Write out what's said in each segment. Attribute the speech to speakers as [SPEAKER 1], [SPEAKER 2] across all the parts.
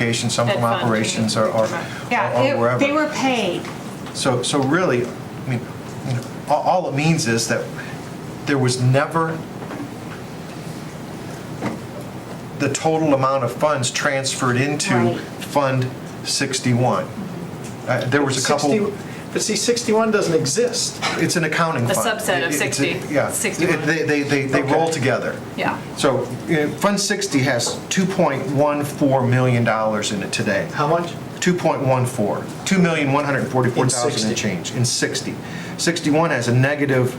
[SPEAKER 1] Education, some from
[SPEAKER 2] Ed Fund.
[SPEAKER 1] operations or or-
[SPEAKER 2] Yeah,
[SPEAKER 1] or
[SPEAKER 2] it- they
[SPEAKER 1] wherever.
[SPEAKER 2] were paid.
[SPEAKER 1] So, so really, I mean, you know, all all it means is that there was never the total amount of funds transferred into
[SPEAKER 2] Right.
[SPEAKER 1] Fund 61. Uh, There was a couple,
[SPEAKER 3] 60 But see, 61 doesn't exist.
[SPEAKER 1] it's an accounting
[SPEAKER 2] A
[SPEAKER 1] fund.
[SPEAKER 2] subset
[SPEAKER 1] It-
[SPEAKER 2] of
[SPEAKER 1] it's a-
[SPEAKER 2] 60,
[SPEAKER 1] Yeah.
[SPEAKER 2] 61.
[SPEAKER 1] They- They, they, they roll together.
[SPEAKER 2] Yeah.
[SPEAKER 1] So uh, Fund 60 has $2.14 million in it today.
[SPEAKER 3] How much?
[SPEAKER 1] 2.14, 2,144,000
[SPEAKER 3] In 60.
[SPEAKER 1] and change, in 60. 61 has a negative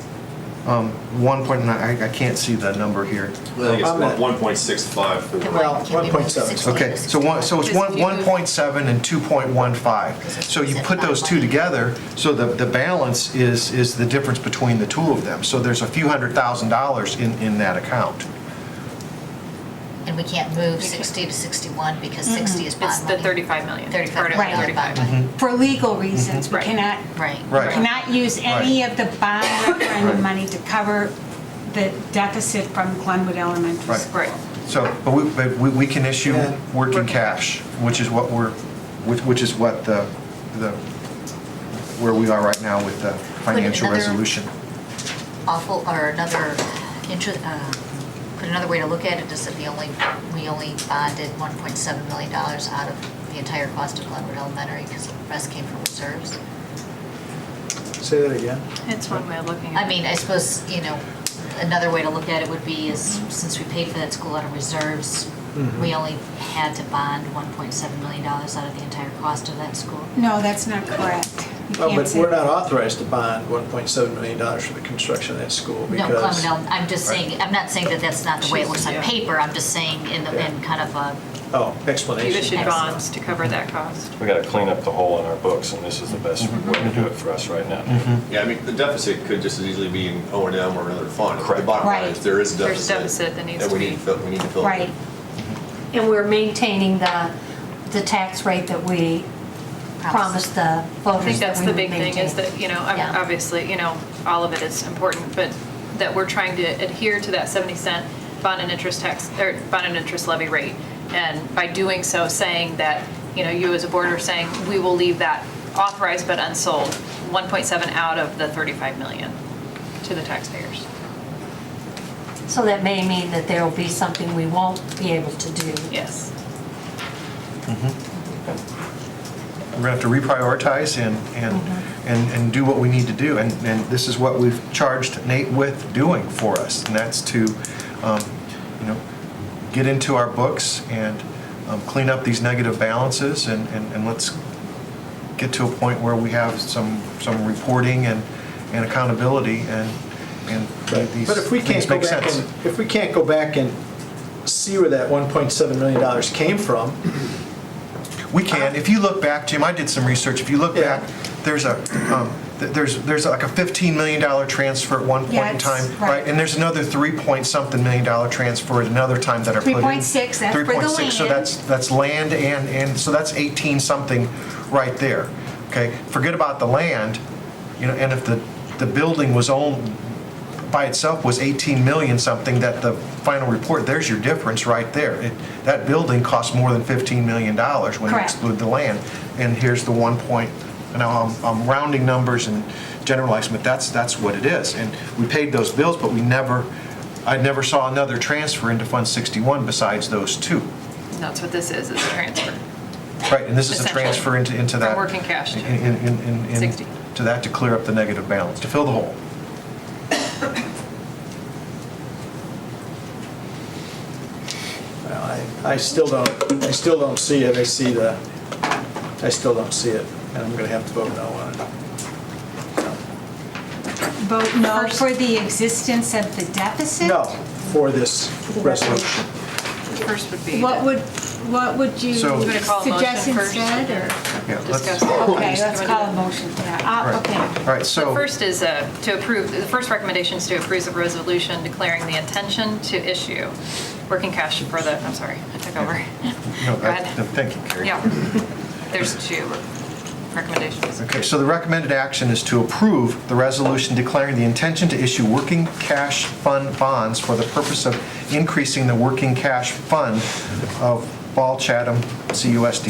[SPEAKER 1] um, 1.9, I I can't see the number here.
[SPEAKER 4] I think
[SPEAKER 3] I'm at-
[SPEAKER 4] it's one point six five for the.
[SPEAKER 3] Well, 1.7.
[SPEAKER 1] Okay, so one, so it's one,
[SPEAKER 2] Because if you do-
[SPEAKER 1] 1.7 and 2.15. So you put those two together, so the, the balance is, is the difference between the two of them. So there's a few hundred thousand dollars in, in that account.
[SPEAKER 5] And we can't move 60 to 61 because 60 is
[SPEAKER 6] It's
[SPEAKER 5] bond
[SPEAKER 6] the
[SPEAKER 5] money.
[SPEAKER 6] 35 million.
[SPEAKER 5] 35
[SPEAKER 6] Or no,
[SPEAKER 5] million
[SPEAKER 2] Right.
[SPEAKER 5] bond
[SPEAKER 6] 35.
[SPEAKER 5] money.
[SPEAKER 2] For legal reasons, we
[SPEAKER 6] Right.
[SPEAKER 2] cannot,
[SPEAKER 5] Right.
[SPEAKER 1] Mm-hmm. Right.
[SPEAKER 2] cannot use any of the bond
[SPEAKER 1] Right.
[SPEAKER 2] referendum money to cover the deficit from Glenwood Elementary
[SPEAKER 1] Right.
[SPEAKER 2] School.
[SPEAKER 6] Right.
[SPEAKER 1] So, but we, but we, we can issue
[SPEAKER 3] Yeah.
[SPEAKER 1] working cash, which is what we're, which, which is what the, the, where we are right now with the financial
[SPEAKER 5] another-
[SPEAKER 1] resolution.
[SPEAKER 5] Awful, or another, intro- uh, put another way to look at it is that the only, we only bonded 1.7 million dollars out of the entire cost of Glenwood Elementary because the rest came from reserves.
[SPEAKER 3] Say that again.
[SPEAKER 6] It's one way of looking at it.
[SPEAKER 5] I mean, I suppose, you know, another way to look at it would be is, since we paid for that school out of reserves, we only had to bond 1.7 million dollars out of the entire cost of that school.
[SPEAKER 2] No, that's not correct. You
[SPEAKER 3] Well,
[SPEAKER 2] can't
[SPEAKER 3] but
[SPEAKER 2] say
[SPEAKER 3] we're
[SPEAKER 2] that.
[SPEAKER 3] not authorized to bond 1.7 million dollars for the construction of that school
[SPEAKER 5] No,
[SPEAKER 3] because.
[SPEAKER 5] Clementine, I'm just saying, I'm not saying that that's not the way it looks on
[SPEAKER 6] Yeah.
[SPEAKER 5] paper, I'm just saying in, the- in kind of a,
[SPEAKER 3] Oh,
[SPEAKER 6] You
[SPEAKER 3] explanation.
[SPEAKER 6] issued bonds to cover that cost.
[SPEAKER 7] We got to clean up the hole in our books, and this is the best way to do it for us right now.
[SPEAKER 4] Yeah, I mean, the deficit could just as easily be in O and M or another fund.
[SPEAKER 7] Correct.
[SPEAKER 4] The bottom line
[SPEAKER 2] Right.
[SPEAKER 4] is there is a
[SPEAKER 6] There's
[SPEAKER 4] deficit.
[SPEAKER 6] deficit that needs to
[SPEAKER 4] we
[SPEAKER 6] be-
[SPEAKER 4] need to fill, we need to fill. it.
[SPEAKER 2] Right.
[SPEAKER 8] And we're maintaining the, the tax rate that we promised the
[SPEAKER 6] I think
[SPEAKER 8] voters that
[SPEAKER 6] that's
[SPEAKER 8] we
[SPEAKER 6] the
[SPEAKER 8] would
[SPEAKER 6] big thing is that, you know, ob-
[SPEAKER 5] Yeah.
[SPEAKER 6] obviously, you know, all of it is important, but that we're trying to adhere to that 70 cent bond and interest tax, or bond and interest levy rate. And by doing so, saying that, you know, you as a board are saying, we will leave that authorized but unsold, 1.7 out of the 35 million to the taxpayers.
[SPEAKER 8] So that may mean that there will be something we won't be able to do.
[SPEAKER 6] Yes.
[SPEAKER 1] We're gonna have to reprioritize and, and, and, and do what we need to do. And, and this is what we've charged Nate with doing for us, and that's to, um, you know, get into our books and um, clean up these negative balances and, and, and let's get to a point where we have some, some reporting and, and accountability and, and these
[SPEAKER 3] But if we can't
[SPEAKER 1] things
[SPEAKER 3] go
[SPEAKER 1] make
[SPEAKER 3] back
[SPEAKER 1] sense.
[SPEAKER 3] and, if we can't go back and see where that 1.7 million dollars came from,
[SPEAKER 1] We can. If you look back, Jim, I did some research. If you look
[SPEAKER 3] Yeah.
[SPEAKER 1] back, there's a, um, th- there's, there's like a $15 million transfer at one point in
[SPEAKER 2] Yes,
[SPEAKER 1] time.
[SPEAKER 2] right.
[SPEAKER 1] And there's another three point something million dollar transfer at another time that are put in.
[SPEAKER 2] 3.6, that's for the
[SPEAKER 1] 3.6, so
[SPEAKER 2] land.
[SPEAKER 1] that's, that's land and, and, so that's 18 something right there. Okay? Forget about the land, you know, and if the, the building was owned, by itself was 18 million something, that the final report, there's your difference right there. It- That building cost more than 15 million dollars when you
[SPEAKER 2] Correct.
[SPEAKER 1] exclude the land. And here's the one point, now I'm, I'm rounding numbers and generalizing, but that's, that's what it is. And we paid those bills, but we never, I never saw another transfer into Fund 61 besides those two.
[SPEAKER 6] And that's what this is, is a transfer.
[SPEAKER 1] Right, and this is a
[SPEAKER 6] Essentially.
[SPEAKER 1] transfer into, into
[SPEAKER 6] From
[SPEAKER 1] that.
[SPEAKER 6] working cash to
[SPEAKER 1] in- in- in- in- in-
[SPEAKER 6] 60.
[SPEAKER 1] To that, to clear up the negative balance, to fill the hole.
[SPEAKER 3] well, I, I still don't, I still don't see it. I see the, I still don't see it, and I'm gonna have to vote no on it.
[SPEAKER 2] Vote no for the existence of the deficit?
[SPEAKER 3] No, for this resolution.
[SPEAKER 6] First would be.
[SPEAKER 2] What
[SPEAKER 6] that-
[SPEAKER 2] would, what would you
[SPEAKER 1] So- You
[SPEAKER 6] wanna call a motion
[SPEAKER 2] suggest
[SPEAKER 6] first?
[SPEAKER 2] instead, or?
[SPEAKER 1] Yeah, let's-
[SPEAKER 6] Discuss.
[SPEAKER 2] Okay,
[SPEAKER 6] You wanna
[SPEAKER 2] let's
[SPEAKER 6] do
[SPEAKER 2] call
[SPEAKER 6] that?
[SPEAKER 2] a motion for that.
[SPEAKER 1] Right.
[SPEAKER 2] Uh, Okay.
[SPEAKER 1] All right, so.
[SPEAKER 6] The first is uh, to approve, the first recommendation is to approve the resolution declaring the intention to issue working cash for the, I'm sorry, I took over.
[SPEAKER 1] No,
[SPEAKER 6] Go
[SPEAKER 1] I-
[SPEAKER 6] ahead.
[SPEAKER 1] Thank you, Carrie.
[SPEAKER 6] Yeah, there's two recommendations.
[SPEAKER 1] Okay, so the recommended action is to approve the resolution declaring the intention to issue working cash fund bonds for the purpose of increasing the working cash fund of Ball Chatham CUSD